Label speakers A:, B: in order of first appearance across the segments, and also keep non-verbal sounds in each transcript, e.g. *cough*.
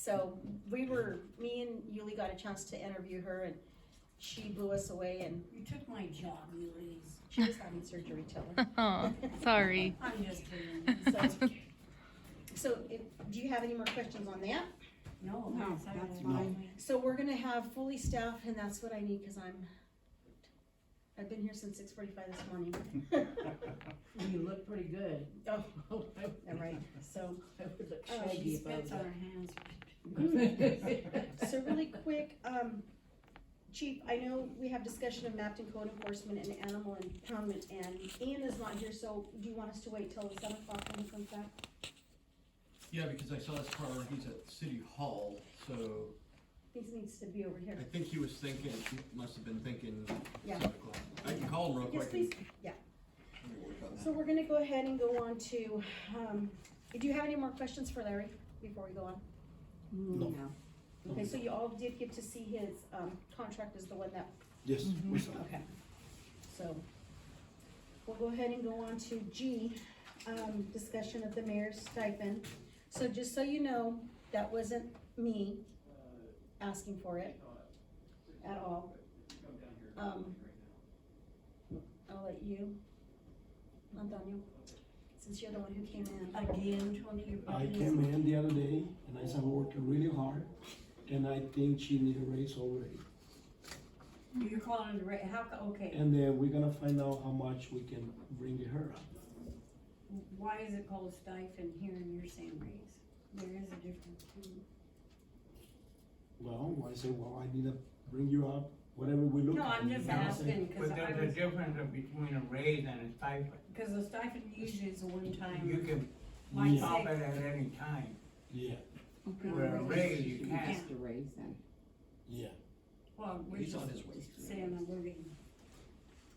A: So we were, me and Yuli got a chance to interview her and she blew us away and
B: You took my job, you ladies.
A: she was having surgery till her.
C: Oh,
B: *laughs*
C: sorry.
B: I'm just kidding. *laughs*
A: So- So if, do you have any more questions on that?
B: No,
D: No,
B: that's
D: that's
B: fine.
A: So we're gonna have fully staffed and that's what I need, cause I'm, I've been here since six forty-five this morning.
D: You look pretty good.
A: Oh,
D: All
A: all right, so,
D: I would look
A: Oh,
D: shaggy
B: She
D: if I
B: spits
D: was.
B: on her hands.
A: so really quick, um, Chief, I know we have discussion of Mapton code enforcement and animal impoundment and Ian is not here, so do you want us to wait till seven o'clock when he comes back?
E: Yeah, because I saw his car, he's at City Hall, so
A: This needs to be over
E: I
A: here.
E: think he was thinking, he must have been thinking
A: Yeah.
E: seven o'clock. I can call him real
A: Yes,
E: quick.
A: please.
E: and-
A: Yeah.
E: Let me work on that.
A: So we're gonna go ahead and go on to, um, do you have any more questions for Larry before we go on?
D: No.
A: Okay, so you all did get to see his, um, contract is the one that,
E: Yes, we saw.
A: okay. So, we'll go ahead and go on to G, um, discussion of the mayor's stipend. So just so you know, that wasn't me asking for it at all. Um, I'll let you, Antonio, since you're the one who came in.
B: Again, Tony, your
F: I
B: buddy
F: came in the other day and I said, I'm working really hard and I think she needs a raise already.
B: You're calling it, a ra- how, co- okay,
F: And then we're gonna find out how much we can bring her up.
B: why is it called stipend here and you're saying raise? There is a difference too.
F: Well, I say, well, I need to bring you up, whatever we look at.
B: No, I'm just
F: And I say,
B: asking, cause
G: But
B: I
G: there's a
B: was,
G: difference between a raise and a stipend.
B: cause the stipend usually is a
G: You
B: one-time,
G: can
B: like
F: Yeah.
G: pop
B: say,
G: it at any time,
F: Yeah,
G: where a raise you can't.
D: Just a raise then.
F: yeah.
B: well, we're
E: He's
B: just
E: on his way.
B: saying a wording.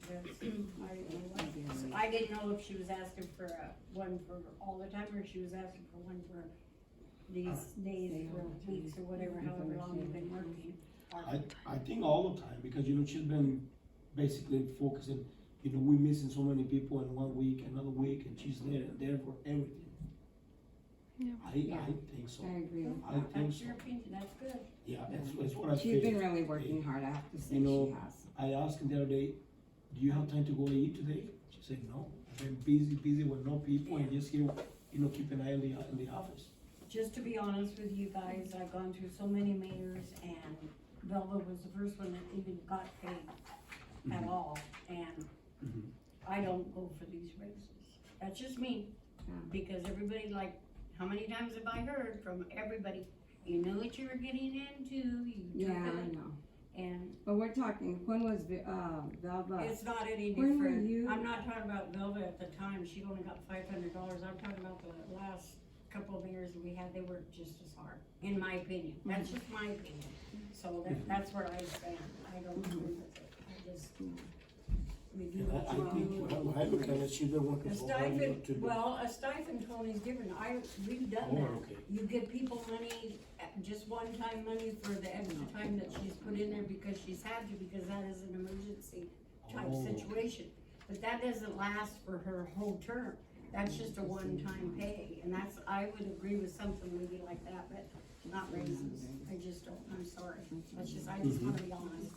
B: That's,
E: *clears throat*
B: I don't know what. I didn't know if she was asking for a, one for all the time, or she was asking for one for these days, or weeks, or whatever, however long you've been working.
F: I, I think all the time, because you know, she's been basically focusing, you know, we're missing so many people in one week, another week, and she's there and there for everything.
C: Yeah.
F: I,
D: Yeah.
F: I think so,
D: I agree with
F: I
D: that.
F: think
B: That's
F: so,
B: your opinion, that's good.
F: yeah, that's, that's what I feel.
D: She's been really working hard, I have to say,
F: You know,
D: she has.
F: I asked him the other day, do you have time to go eat today? She said, no, I've been busy, busy with no people and just here, you know, keep an eye on the, on the office.
B: Just to be honest with you guys, I've gone through so many mayors and Velva was the first one that even got paid at
F: Mhm.
B: all, and
F: Mhm.
B: I don't go for these races. That's just me,
D: Yeah.
B: because everybody like, how many times have I heard from everybody, you knew what you were getting into, you
D: Yeah,
B: took
D: I
B: it,
D: know,
B: and
D: but we're talking, when was, Vi- uh, Velva?
B: it's not any
D: When were
B: different.
D: you-
B: I'm not talking about Velva at the time, she only got five hundred dollars, I'm talking about the last couple of mayors we had, they worked just as hard, in my opinion, that's just my opinion. So
F: Mm-hmm.
B: that, that's where I stand, I don't
D: Mm-hmm.
B: agree with it, I just, we do
F: And I,
B: what you
F: I
B: want.
F: think, when I- when I look at it, she's been working
B: A
F: so hard, you know, to do.
B: stipend, well, a stipend, Tony's different, I, we've done
F: Oh,
B: that.
F: okay.
B: You give people money, uh, just one-time money for the extra
F: Oh.
B: time that she's put in there because she's had to, because that is an emergency type
F: Oh.
B: situation. But that doesn't last for her whole term, that's just a one-time pay, and that's, I would agree with something maybe like that, but not raises. I just don't, I'm sorry, that's just, I just wanna
F: Mm-hmm.
B: be honest.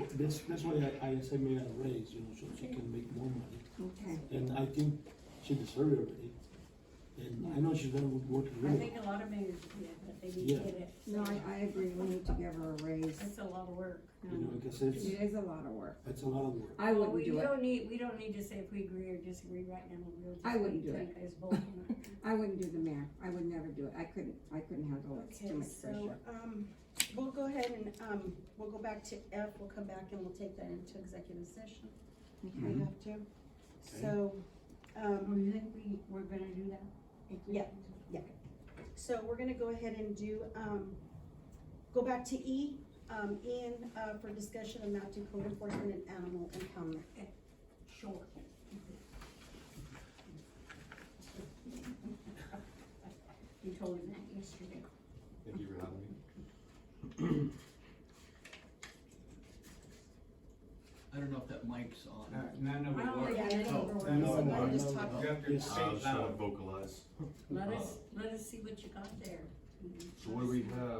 F: Yeah, that's, that's why I, I said me a raise, you know, so she can make more money.
D: Okay,
F: And I think she deserves it already. And I know she's been working
B: I
F: really
B: think a lot of mayors do that, but they need to
F: Yeah.
B: get it,
D: no, I, I agree, we need to give her a raise,
B: it's a lot of work.
F: You know, because it's,
D: it is a lot of work,
F: it's a lot of work.
D: I
B: Well,
D: wouldn't
B: We
D: do it,
B: don't need, we don't need to say if we agree or disagree right now, we'll just.
D: I wouldn't do
B: think it's both or not.
D: *laughs* I wouldn't do the mayor, I would never do it, I couldn't, I couldn't handle it, it's too
A: Okay,
D: much
A: so,
D: pressure.
A: um, we'll go ahead and, um, we'll go back to F, we'll come back and we'll take that into executive session. if
F: Mm-hmm.
A: We have to. So,
B: Um,
A: um,
B: you think we, we're gonna do that?
A: Yeah. so we're gonna go ahead and do, um, go back to E, um, Ian, uh, for discussion of mounting code enforcement and animal impoundment.
B: Sure. *laughs* You told him that yesterday.
H: Thank you for having me.
E: I don't know if that mic's on.
G: Uh, None of
B: I
G: it
B: don't
G: works.
B: think it
E: Oh,
B: overworks.
F: I know, I
A: So
F: know,
A: why don't
F: I
A: we just
F: know, I
A: talk-
F: know.
G: You have to
F: Yes.
G: say it
H: Uh, so I
G: loud.
H: vocalize.
B: Let us, let us see what you got there. So what do we have?